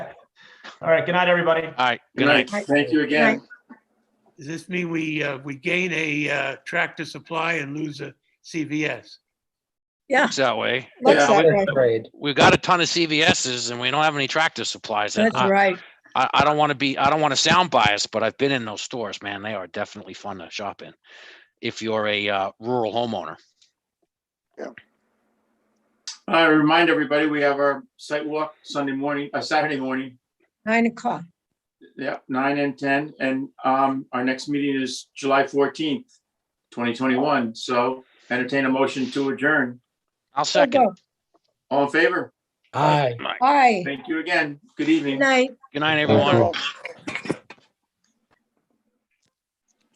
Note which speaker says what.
Speaker 1: All right, good night, everybody.
Speaker 2: All right,
Speaker 3: Good night. Thank you again.
Speaker 4: Does this mean we, uh, we gain a uh, tractor supply and lose a CVS?
Speaker 2: Looks that way.
Speaker 5: Looks
Speaker 3: Yeah.
Speaker 5: that way.
Speaker 6: Trade.
Speaker 2: We've got a ton of CVSs and we don't have any tractor supplies. And
Speaker 5: That's
Speaker 2: I,
Speaker 5: right.
Speaker 2: I, I don't want to be, I don't want to sound biased, but I've been in those stores, man. They are definitely fun to shop in. If you're a uh, rural homeowner.
Speaker 3: Uh, I remind everybody, we have our site walk Sunday morning, uh, Saturday morning,
Speaker 5: Nine o'clock.
Speaker 3: yeah, nine and ten, and, um, our next meeting is July fourteenth, twenty twenty-one, so entertain a motion to adjourn.
Speaker 2: I'll second.
Speaker 3: All in favor?
Speaker 6: Aye.
Speaker 5: Aye.
Speaker 3: Thank you again. Good evening.
Speaker 5: Night.
Speaker 2: Good night, everyone.